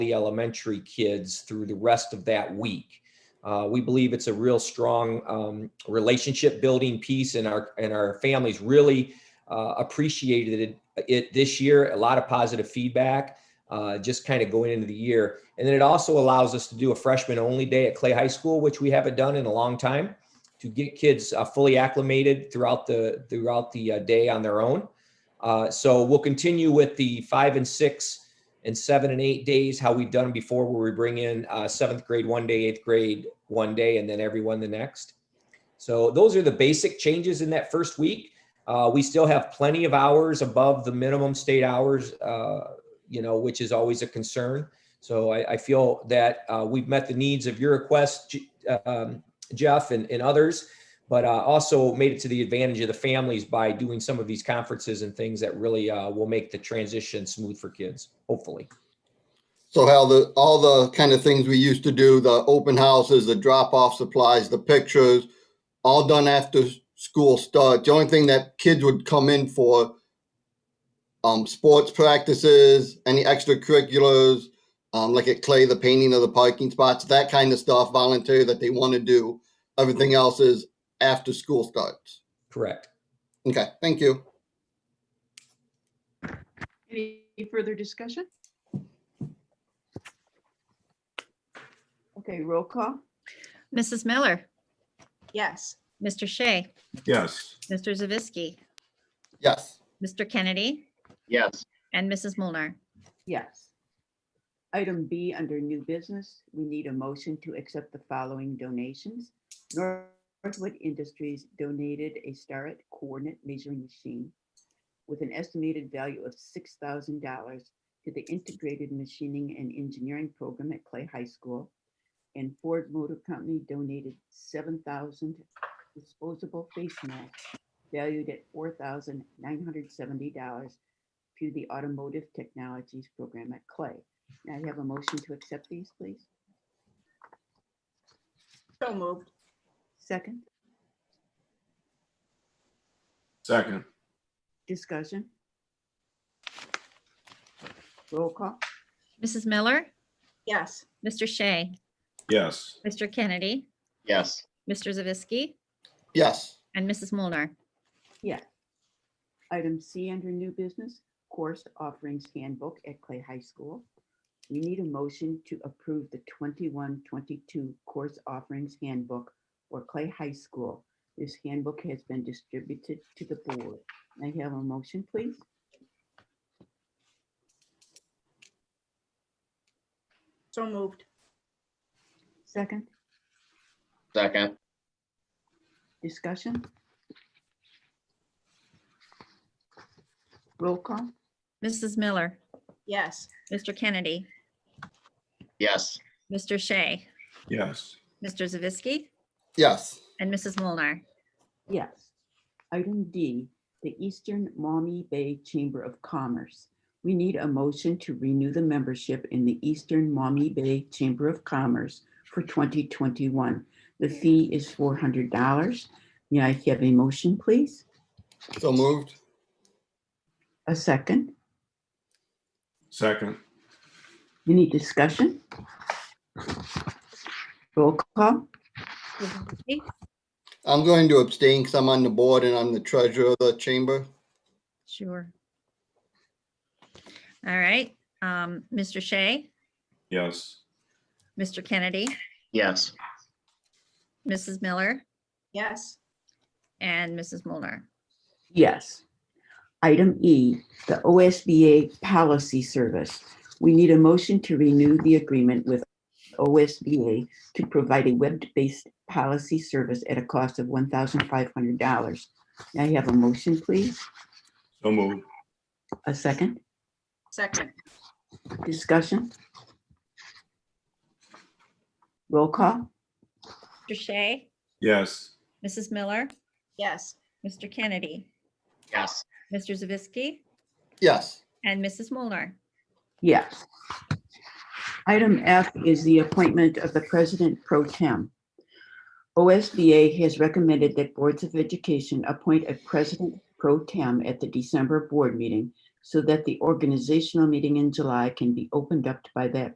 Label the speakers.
Speaker 1: the elementary kids through the rest of that week. Uh, we believe it's a real strong um, relationship building piece, and our and our families really uh, appreciated it, it this year. A lot of positive feedback, uh, just kind of going into the year, and then it also allows us to do a freshman only day at Clay High School, which we haven't done in a long time, to get kids uh, fully acclimated throughout the throughout the uh, day on their own. Uh, so we'll continue with the five and six and seven and eight days, how we've done before, where we bring in uh, seventh grade one day, eighth grade one day, and then everyone the next. So those are the basic changes in that first week. Uh, we still have plenty of hours above the minimum state hours, uh, you know, which is always a concern. So I, I feel that uh, we've met the needs of your request, J- um, Jeff, and, and others but uh, also made it to the advantage of the families by doing some of these conferences and things that really uh, will make the transition smooth for kids, hopefully.
Speaker 2: So Hal, the, all the kind of things we used to do, the open houses, the drop-off supplies, the pictures, all done after s- school starts. The only thing that kids would come in for, um, sports practices, any extracurriculars, um, like at Clay, the painting of the parking spots, that kind of stuff, voluntary that they want to do. Everything else is after school starts.
Speaker 1: Correct.
Speaker 2: Okay, thank you.
Speaker 3: Any further discussion? Okay, roll call.
Speaker 4: Mrs. Miller,
Speaker 3: Yes.
Speaker 4: Mr. Shea,
Speaker 5: Yes.
Speaker 4: Mr. Zavisky,
Speaker 2: Yes.
Speaker 4: Mr. Kennedy,
Speaker 5: Yes.
Speaker 4: and Mrs. Mulner.
Speaker 3: Yes. Item B, under new business, we need a motion to accept the following donations. Northwood Industries donated a Starrett coordinate measuring machine with an estimated value of six thousand dollars to the Integrated Machining and Engineering Program at Clay High School. And Ford Motor Company donated seven thousand disposable face masks valued at four thousand nine hundred seventy dollars to the Automotive Technologies Program at Clay. Now you have a motion to accept these, please.
Speaker 6: So moved.
Speaker 3: Second,
Speaker 5: Second.
Speaker 3: discussion. Roll call,
Speaker 4: Mrs. Miller,
Speaker 6: Yes.
Speaker 4: Mr. Shea,
Speaker 5: Yes.
Speaker 4: Mr. Kennedy,
Speaker 5: Yes.
Speaker 4: Mr. Zavisky,
Speaker 2: Yes.
Speaker 4: and Mrs. Mulner.
Speaker 3: item C under new business, course offerings handbook at Clay High School. We need a motion to approve the 21-22 course offerings handbook for Clay High School. This handbook has been distributed to the board. May I have a motion, please?
Speaker 6: So moved.
Speaker 3: Second,
Speaker 5: Second.
Speaker 3: Discussion? Roll call?
Speaker 4: Mrs. Miller,
Speaker 6: Yes.
Speaker 4: Mr. Kennedy,
Speaker 5: Yes.
Speaker 4: Mr. Shea,
Speaker 5: Yes.
Speaker 4: Mr. Zavisky,
Speaker 2: Yes.
Speaker 4: and Mrs. Mulner.
Speaker 3: Yes. Item D, the Eastern Maumee Bay Chamber of Commerce. We need a motion to renew the membership in the Eastern Maumee Bay Chamber of Commerce for 2021. The fee is $400. May I have a motion, please?
Speaker 2: So moved.
Speaker 3: A second?
Speaker 5: Second.
Speaker 3: Any discussion? Roll call?
Speaker 4: Zavisky,
Speaker 2: I'm going to abstain because I'm on the board and I'm the treasurer of the chamber.
Speaker 4: Sure. All right, um, Mr. Shea,
Speaker 5: Yes.
Speaker 4: Mr. Kennedy,
Speaker 5: Yes.
Speaker 4: Mrs. Miller,
Speaker 6: Yes.
Speaker 4: and Mrs. Mulner.
Speaker 3: Yes. Item E, the OSBA Policy Service. We need a motion to renew the agreement with OSBA to provide a web-based policy service at a cost of $1,500. May I have a motion, please?
Speaker 5: So moved.
Speaker 3: A second?
Speaker 6: Second.
Speaker 3: Discussion? Roll call?
Speaker 4: Mr. Shea,
Speaker 5: Yes.
Speaker 4: Mrs. Miller,
Speaker 6: Yes.
Speaker 4: Mr. Kennedy,
Speaker 5: Yes.
Speaker 4: Mr. Zavisky,
Speaker 2: Yes.
Speaker 4: and Mrs. Mulner.
Speaker 3: Yes. Item F is the appointment of the president pro tem. OSBA has recommended that boards of education appoint a president pro tem at the December board meeting so that the organizational meeting in July can be opened up by that